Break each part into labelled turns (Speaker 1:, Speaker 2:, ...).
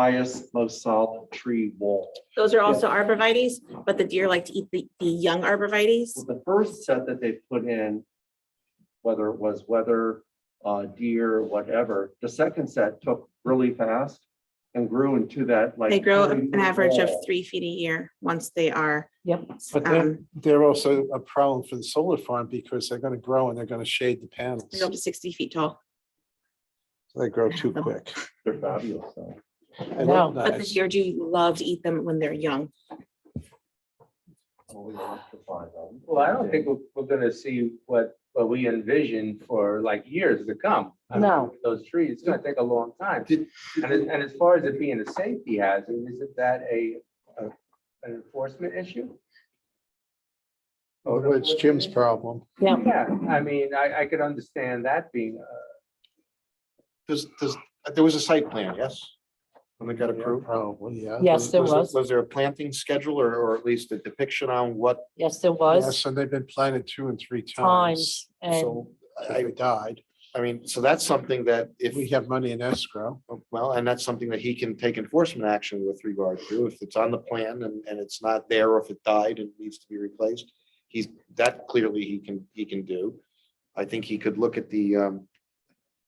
Speaker 1: highest, most solid tree wall.
Speaker 2: Those are also arborvitae's, but the deer like to eat the, the young arborvitae's.
Speaker 1: The first set that they put in, whether it was weather, uh, deer, whatever, the second set took really fast and grew into that like.
Speaker 2: They grow an
Speaker 1: 30-foot
Speaker 2: average of
Speaker 1: wall.
Speaker 2: three feet a year once they are.
Speaker 3: Yep.
Speaker 4: But they're,
Speaker 2: um,
Speaker 4: they're also a problem for the solar farm because they're gonna grow and they're gonna shade the panels.
Speaker 2: they're up to sixty feet tall,
Speaker 4: So They grow too quick.
Speaker 1: They're fabulous. though.
Speaker 4: I
Speaker 3: know.
Speaker 4: love
Speaker 2: but the
Speaker 4: that.
Speaker 2: deer do love to eat them when they're young.
Speaker 1: Well, we electrify them.
Speaker 5: Well, I don't think we're, we're gonna see what, what we envision for like years to come. I mean,
Speaker 3: No.
Speaker 5: Those trees, it's gonna take a long time.
Speaker 1: Did-
Speaker 5: And, as- and as far as it being a safety hazard, isn't that a, a- an enforcement issue?
Speaker 4: Well, Oh, It's Jim's problem.
Speaker 3: Yeah.
Speaker 5: Yeah, I mean, I, I could understand that being, uh,
Speaker 6: Does, does, there was a site plan, yes? When they got approved?
Speaker 4: Probably, yeah.
Speaker 3: Yes, there was.
Speaker 6: Was there a planting schedule or, or at least a depiction on what
Speaker 3: Yes, there
Speaker 4: Yes, um,
Speaker 3: was
Speaker 4: and they've been planted two and three times.
Speaker 3: times and
Speaker 6: So
Speaker 4: If
Speaker 6: I,
Speaker 4: They died.
Speaker 6: I mean, so that's something that if,
Speaker 4: We have money in escrow.
Speaker 6: well, and that's something that he can take enforcement action with regard to. If it's on the plan and, and it's not there, or if it died and needs to be replaced. He's, that clearly he can, he can do. I think he could look at the, um,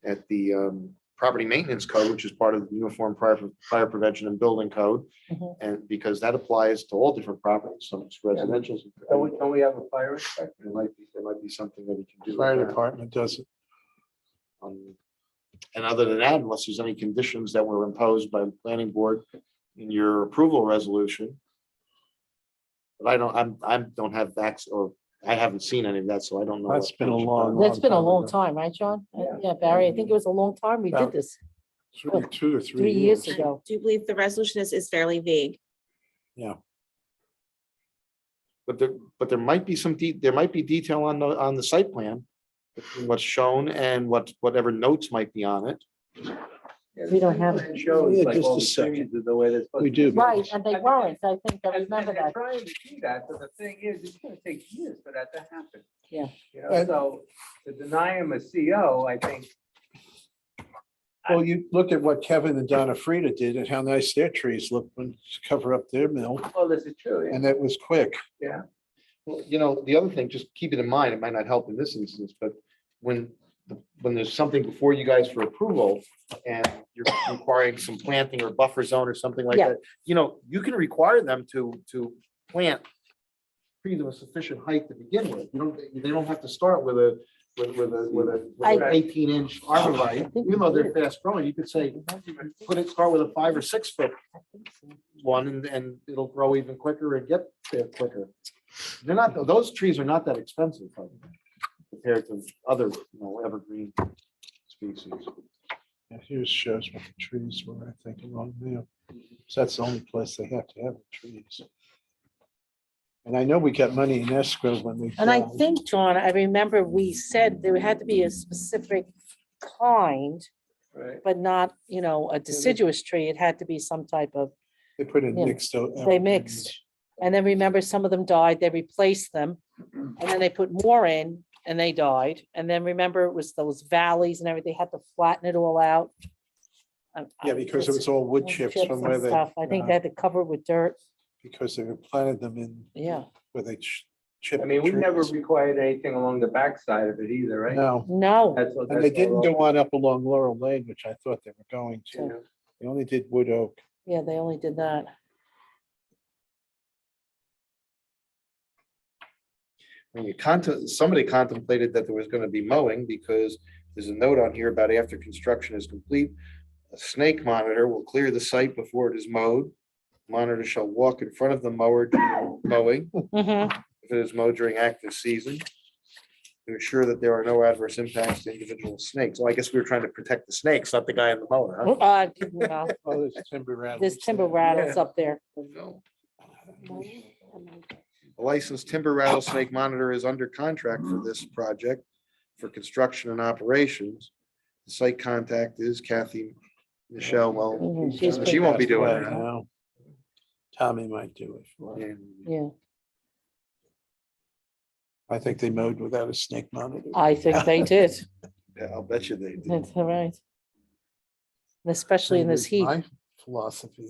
Speaker 6: at the, um, property maintenance code, which is part of the Uniform Fire, Fire Prevention and Building Code.
Speaker 3: Mhm.
Speaker 6: And because that applies to all different properties, some it's residential.
Speaker 5: don't we, don't we have a fire inspector?
Speaker 6: There might be, there might be something that he can do. with
Speaker 4: Fire
Speaker 6: that.
Speaker 4: department does it.
Speaker 6: Um, And other than that, unless there's any conditions that were imposed by the planning board in your approval resolution. But I don't, I'm, I'm, don't have that, or I haven't seen any of that, so I don't know.
Speaker 4: That's
Speaker 6: what-
Speaker 4: been a long-
Speaker 3: that's been a
Speaker 4: time
Speaker 3: long
Speaker 4: ago.
Speaker 3: time, right, John? Uh, Yeah, Barry, I think it was a long time we
Speaker 4: Yeah.
Speaker 3: did this.
Speaker 4: Two two or Oh, three
Speaker 3: Three years
Speaker 4: years.
Speaker 2: I
Speaker 3: ago.
Speaker 2: do believe the resolution is, is fairly vague.
Speaker 6: But there, but there might be some, de- there might be detail on the, on the site plan. between What's shown and what, whatever notes might be on it.
Speaker 5: Yeah,
Speaker 3: We don't have-
Speaker 5: it Shows
Speaker 4: Yeah,
Speaker 5: like
Speaker 4: just
Speaker 5: all
Speaker 4: a
Speaker 5: the trees
Speaker 4: second.
Speaker 5: are the way they're supposed.
Speaker 4: We
Speaker 5: to
Speaker 4: do.
Speaker 5: be.
Speaker 3: Right, and they
Speaker 5: I think-
Speaker 3: weren't. I think I
Speaker 5: And- and
Speaker 3: remember
Speaker 5: they're
Speaker 3: that.
Speaker 5: Trying to do that, but the thing is, it's gonna take years for that to happen.
Speaker 3: Yeah.
Speaker 5: You know, so to deny him a CO, I think,
Speaker 4: Well, you look at what Kevin and Donna Frida did and how nice their trees looked when to cover up their mill
Speaker 5: well, this is true. yeah.
Speaker 4: and that was quick.
Speaker 6: Well, you know, the other thing, just keep it in mind, it might not help in this instance, but when, the- when there's something before you guys for approval and you're requiring some planting or buffer zone or something like
Speaker 3: Yeah.
Speaker 6: that, you know, you can require them to, to plant trees of a sufficient height to begin with. You don't, they don't have to start with a, with, with a, with a, with an
Speaker 5: I-
Speaker 6: eighteen inch arborvitae.
Speaker 3: think
Speaker 6: Even though
Speaker 3: we
Speaker 6: they're fast growing, you could say, put it, start with a five or six foot one and, and it'll grow even quicker and get there quicker. They're not, those trees are not that expensive by the way, compared to other, you know, evergreen species.
Speaker 4: Yeah, Here's shows what the trees were, I think, along there. So that's the only place they have to have the trees. And I know we got money in escrow when uh, we.
Speaker 3: And I
Speaker 4: filed.
Speaker 3: think, John, I remember we said there had to be a specific kind,
Speaker 5: Right.
Speaker 3: but not, you know, a deciduous tree. It had to be some type of,
Speaker 4: They put in
Speaker 3: yeah,
Speaker 4: mixed. o- uh,
Speaker 3: they mixed. And then remember, some of them died, they replaced them. And then they put more in and they died. And then remember, it was those valleys and everything, had to flatten it all out. Um,
Speaker 4: Yeah,
Speaker 3: I-
Speaker 4: because it
Speaker 3: it's
Speaker 4: was all wood
Speaker 3: wood
Speaker 4: chips
Speaker 3: chips
Speaker 4: from
Speaker 3: and
Speaker 4: where they.
Speaker 3: stuff. I think they
Speaker 4: uh,
Speaker 3: had to cover it with dirt.
Speaker 4: Because they planted them in.
Speaker 3: Yeah,
Speaker 4: Where they ch- chip.
Speaker 5: I mean, we never
Speaker 4: trees.
Speaker 5: required anything along the backside of it either, right?
Speaker 4: No,
Speaker 3: no.
Speaker 5: That's what-
Speaker 4: and they
Speaker 5: that's
Speaker 4: didn't
Speaker 5: all
Speaker 4: go on up along Laurel Lane, which I thought they were going to.
Speaker 5: wrong.
Speaker 4: They only did wood oak.
Speaker 3: Yeah, they only did that.
Speaker 6: When you contem, somebody contemplated that there was gonna be mowing because there's a note on here about after construction is complete. A snake monitor will clear the site before it is mowed. Monitor shall walk in front of the mower during mowing.
Speaker 3: Mhm.
Speaker 6: if it is mowed during active season. To ensure that there are no adverse impacts to individual snakes. Well, I guess we were trying to protect the snakes, not the guy in the mower. huh?
Speaker 3: Uh, well,
Speaker 4: Oh, there's timber rattles.
Speaker 3: There's timber
Speaker 4: there. Uh,
Speaker 3: rattles up there.
Speaker 6: No. A licensed timber rattlesnake monitor is under contract for this project for construction and operations. The site contact is Kathy Michelle Well.
Speaker 3: Mhm, she's
Speaker 6: She
Speaker 3: pretty-
Speaker 6: won't be
Speaker 4: Passed
Speaker 6: doing
Speaker 4: away
Speaker 6: that.
Speaker 4: now. Tommy might do it. for her.
Speaker 6: and
Speaker 3: Yeah,
Speaker 4: I think they mowed without a snake monitor.
Speaker 3: I think they did.
Speaker 6: I'll bet you they did.
Speaker 3: That's all right. And Especially in this heat.
Speaker 4: My- philosophy